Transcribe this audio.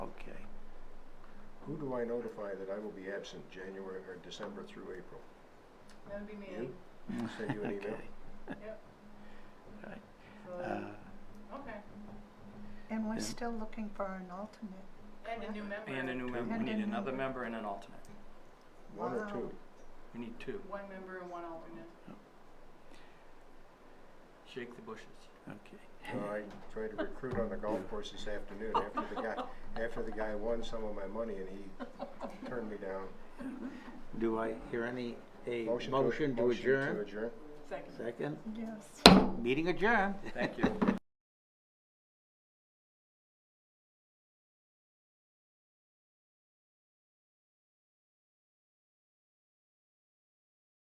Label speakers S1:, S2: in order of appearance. S1: who do I notify that I will be absent January or December through April?
S2: That would be me.
S1: You? Send you an email?
S3: Okay.
S2: Yep.
S3: Right.
S2: So,
S3: Uh,
S2: Okay.
S4: And we're
S3: Yeah.
S4: still looking for an alternate.
S2: And a new member.
S5: And a new member, we
S4: And a
S5: need
S4: new-
S5: another member and an alternate.
S1: One or
S4: Wow.
S1: two?
S5: We need two.
S2: One member and one alternate.
S5: Shake the bushes.
S1: So I tried to recruit on the golf course this afternoon after the guy, after the guy won some of my money and he turned me down.
S3: Do I hear any, a
S1: to-
S3: motion to
S1: Motion to
S3: adjourn?
S1: adjourn.
S2: Second.
S3: Second,
S4: Yes.
S3: meeting adjourned.
S5: Thank you.